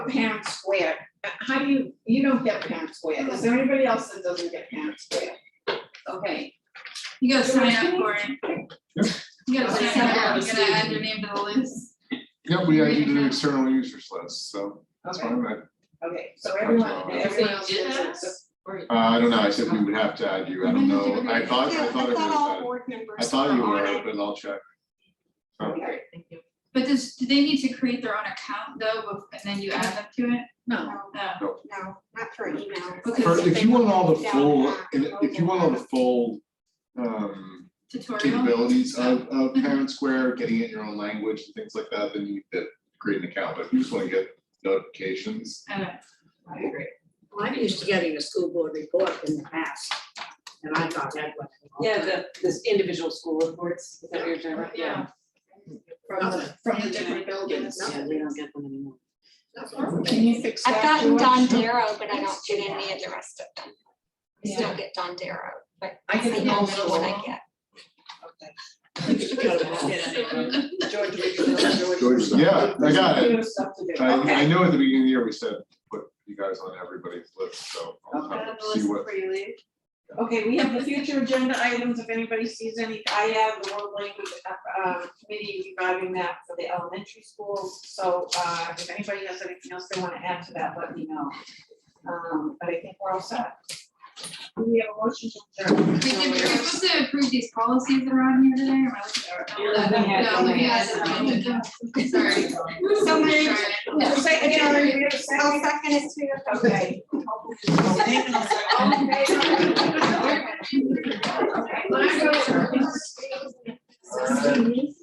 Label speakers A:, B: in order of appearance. A: Pam Square, Uh, how do you, you don't get Pam Square, is there anybody else that doesn't get Pam Square? Okay,
B: You gotta sign up for it. You gotta sign up, you gotta add your name to the list.
C: Yeah, we added you to the external users list, so that's
A: okay,
C: fine, I, uh,
A: okay, so everyone,
C: That's all.
A: everyone else gets it, so-
C: Uh, I don't know, I said we would have to add you, I don't know, I thought, I thought it was
D: all
C: added.
D: board members.
C: I thought you
D: were on
C: were,
D: it.
C: but I'll check.
A: okay,
B: But does, do they need to create their own account though, bef- and then you add them to it?
A: no,
D: No,
B: No.
D: no, not for email.
B: Okay.
C: For- if you want all the
D: Yeah.
C: full, if you want all the full, um,
B: Tutorial?
C: capabilities of, of Parent Square, getting it in your own language and things like that, then you need to create an account, but if you just wanna get notifications.
B: Uh,
A: I agree.
E: Well, I'm used to getting a school board report in the past, and I thought that was.
F: Yeah, the, this individual school reports, is that what you're talking about?
B: Yeah.
A: From the, from the different buildings.
F: Yeah, we don't get them anymore.
A: Can you fix that?
D: I've gotten
A: George?
D: Don Darrow, but I don't get any of the rest of them. I Still get Don Darrow, but
A: I
D: I
A: get
D: don't
A: the
D: know
A: whole
D: what I
A: little,
D: get.
A: George, we can do it.
C: Yeah, I got it.
A: There's stuff to do.
C: I, I
A: Okay.
C: know at the beginning of the year, we said, put you guys on everybody's list, so I'll
B: Add
C: have
B: the
C: to
B: list
C: see what.
B: before you leave.
A: Okay, we have the future agenda items, if anybody sees any, I have the world language, uh, uh, committee regarding that for the elementary schools, so, uh, if anybody has anything else they wanna add to that, let me know. Um, but I think we're all set. Do We have a motion to adjourn.
B: We did, we were supposed to approve these policies that are on here today, or am I looking at? No, looking at it. Sorry.
A: So moved.
B: Sorry.
A: Second, Karen, we have a second.
D: I'll second it too.
A: Okay. All in favor? Okay, let's go.
C: All right.